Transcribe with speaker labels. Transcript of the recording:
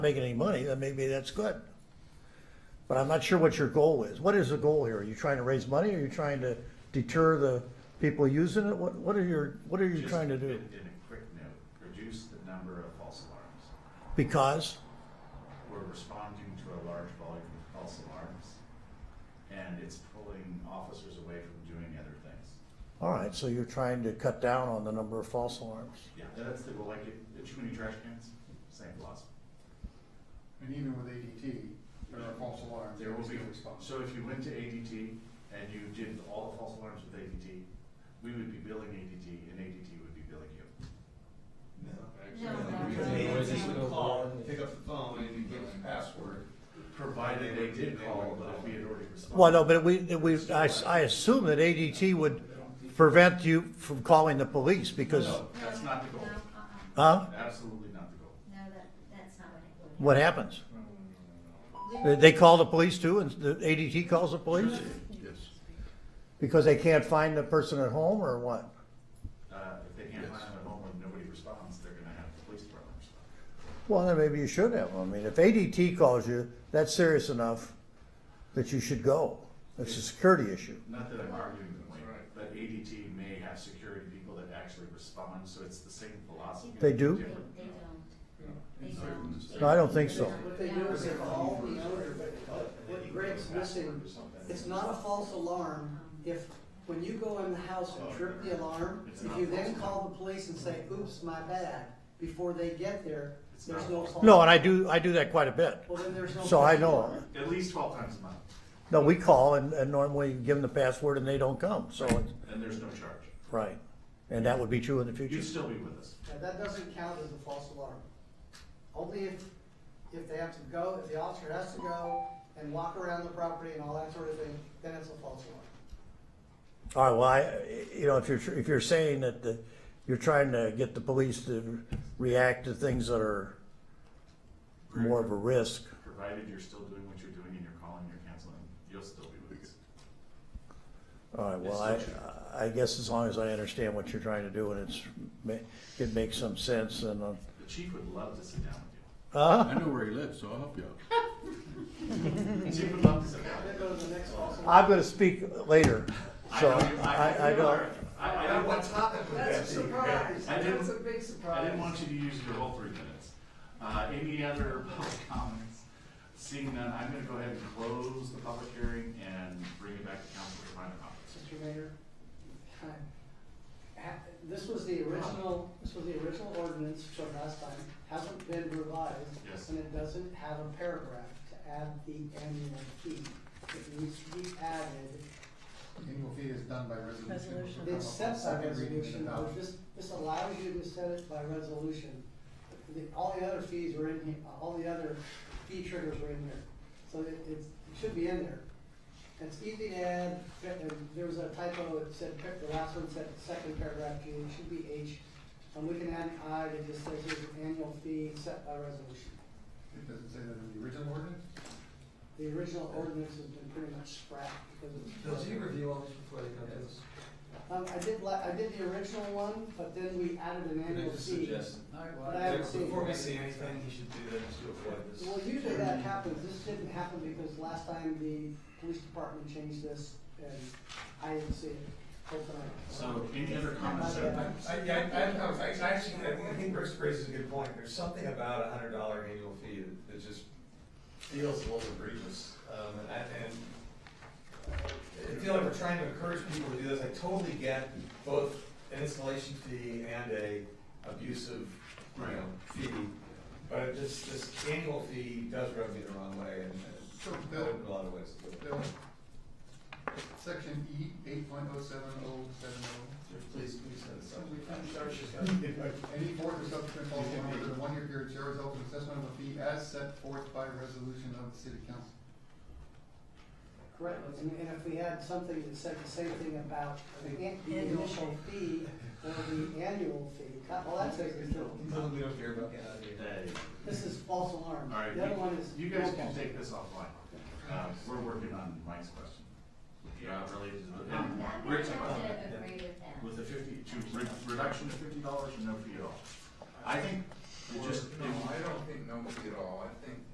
Speaker 1: making any money, then maybe that's good. But I'm not sure what your goal is. What is the goal here? Are you trying to raise money? Are you trying to deter the people using it? What, what are your, what are you
Speaker 2: Just
Speaker 1: trying to
Speaker 2: in-
Speaker 1: do?
Speaker 2: In a quick note, reduce the number of false alarms.
Speaker 1: Because,
Speaker 2: We're responding to a large volume of false alarms, and it's pulling officers away from doing other things.
Speaker 1: all right, so you're trying to cut down on the number of false alarms.
Speaker 2: Yeah, that's the, well, like, it- too many trash cans, same philosophy.
Speaker 3: And even with ADT, there are false alarms.
Speaker 2: There will be,
Speaker 3: no response.
Speaker 2: so if you went to ADT and you did all the false alarms with ADT, we would be billing ADT, and ADT would be billing you.
Speaker 4: No,
Speaker 5: Because
Speaker 4: no,
Speaker 5: they
Speaker 4: no.
Speaker 5: would just
Speaker 4: No.
Speaker 5: call, pick up the phone and you give us a password.
Speaker 2: Provided they did call, but if we had already responded.
Speaker 1: Well, no, but we, we, I, I assume that ADT would prevent you from calling the police because,
Speaker 2: No, that's not the goal.
Speaker 4: No, uh-uh.
Speaker 1: huh?
Speaker 2: Absolutely not the goal.
Speaker 4: No, that, that's not what happened.
Speaker 1: What happens?
Speaker 4: We-
Speaker 1: They- They call the police too and the ADT calls the police?
Speaker 2: Yes.
Speaker 1: Because they can't find the person at home or what?
Speaker 2: Uh, if they can't find them at home and nobody responds, they're gonna have the police department respond.
Speaker 1: Well, then maybe you should have. I mean, if ADT calls you, that's serious enough that you should go. It's a security issue.
Speaker 2: Not that I'm arguing the point, but ADT may have security people that actually respond, so it's the same philosophy.
Speaker 1: They do?
Speaker 4: They,
Speaker 2: Different.
Speaker 4: they don't. They
Speaker 5: It's like-
Speaker 4: don't.
Speaker 1: No, I don't think so.
Speaker 6: What they do is they call the owner, but what Greg's missing, it's not a false alarm if, when you go in the house and trip the alarm, if you then call the police and say, oops, my bad, before they get there, there's no false.
Speaker 1: No, and I do, I do that quite a bit.
Speaker 6: Well, then there's no.
Speaker 1: So I
Speaker 6: false
Speaker 1: know.
Speaker 6: alarm.
Speaker 2: At least twelve times a month,
Speaker 1: No, we call and, and normally give them the password and they don't come, so it's,
Speaker 2: and there's no charge.
Speaker 1: right. And that would be true in the
Speaker 2: You'd
Speaker 1: future.
Speaker 2: still be with us.
Speaker 6: Now, that doesn't count as a false alarm. Only if, if they have to go, if the officer has to go and walk around the property and all that sort of thing, then it's a false alarm.
Speaker 1: All right, well, I, you know, if you're, if you're saying that the, you're trying to get the police to react to things that are more of a risk,
Speaker 2: Provided you're still doing what you're doing and you're calling, you're canceling, you'll still be with us.
Speaker 1: All right, well,
Speaker 2: It's
Speaker 1: I, I guess as long as I understand what you're trying to do and it's, ma- it makes some sense and, uh,
Speaker 2: The chief would love to sit down with
Speaker 1: uh,
Speaker 7: I know where he lives, so I'll help you out.
Speaker 2: you. The chief would love to sit down.
Speaker 6: Then
Speaker 2: with you.
Speaker 6: go to the next false alarm.
Speaker 1: I'm gonna speak later,
Speaker 2: I
Speaker 1: so
Speaker 2: know you-
Speaker 1: I, I
Speaker 2: you
Speaker 1: don't.
Speaker 2: are. I, I don't want,
Speaker 5: topic
Speaker 2: That's a surprise. I didn't- That's a
Speaker 5: big
Speaker 2: I
Speaker 5: surprise.
Speaker 2: didn't want you to use your whole three minutes. Uh, any other public comments? Seeing none, I'm gonna go ahead and close the public hearing and bring it back to council for final comments.
Speaker 6: Mr. Mayor, I- ha- this was the original, this was the original ordinance from last time, hasn't been revised.
Speaker 2: Yes.
Speaker 6: And it doesn't have a paragraph to add the annual fee. It needs to be added.
Speaker 3: Annual fee is done by resolution.
Speaker 6: It sets that
Speaker 3: Second reading
Speaker 6: resolution,
Speaker 3: and
Speaker 6: but
Speaker 3: adoption.
Speaker 6: this, this allows you to set it by resolution. The- All the other fees were in here, all the other fee triggers were in here. So it, it's, it should be in there. It's easy to add, but there- there was a typo, it said, the last one said second paragraph, G, it should be H. And we can add an I, that just says there's an annual fee set by resolution.
Speaker 3: It doesn't say that in the original ordinance?
Speaker 6: The original ordinance has been pretty much scrapped because
Speaker 5: Does
Speaker 6: it's.
Speaker 5: he review all this before they come to us?
Speaker 6: Um, I did like, I did the original one, but then we added
Speaker 5: Can
Speaker 6: an
Speaker 5: I
Speaker 6: annual
Speaker 5: just
Speaker 6: fee.
Speaker 5: suggest-
Speaker 6: But I haven't seen.
Speaker 5: Before we see anything, he should do that just to avoid this.
Speaker 6: Well, usually that happens, this didn't happen because last time the police department changed this and I didn't see it. Hopefully I-
Speaker 2: So any other comments?
Speaker 5: I, I, I, I, I actually, I think Rick's raises a good point. There's something about a hundred dollar annual fee that- that just feels a little egregious. Um, and, I- and I feel like we're trying to encourage people to do this. I totally get both an installation fee and a abusive, you know, fee. But it just, this annual fee does rub me the wrong way and,
Speaker 3: So
Speaker 5: and
Speaker 3: Bill,
Speaker 5: in a lot of ways.
Speaker 3: Bill, section E, eight point oh seven oh seven
Speaker 5: Please, please send this
Speaker 3: oh. Any fourth or subsequent false alarm within a one-year period shall result in assessment of a fee as set forth by resolution of the city council.
Speaker 6: Correct, and, and if we had something that said the same thing about the an- the initial fee or the annual fee, God, well, that's a,
Speaker 5: Little we don't care about. Yeah.
Speaker 2: Hey,
Speaker 6: this is false alarm.
Speaker 2: All right,
Speaker 6: The other one is.
Speaker 2: You guys
Speaker 6: no
Speaker 2: can
Speaker 6: false.
Speaker 2: take this offline. Uh, we're working on Mike's question. Uh, related to the-
Speaker 4: I'm
Speaker 2: and
Speaker 4: not
Speaker 2: Rick's
Speaker 4: going
Speaker 2: question.
Speaker 4: to agree with that.
Speaker 2: With the fifty, to re- reduction of fifty dollars or no fee at all? I think
Speaker 8: It just,
Speaker 5: No, I don't think no fee at all, I think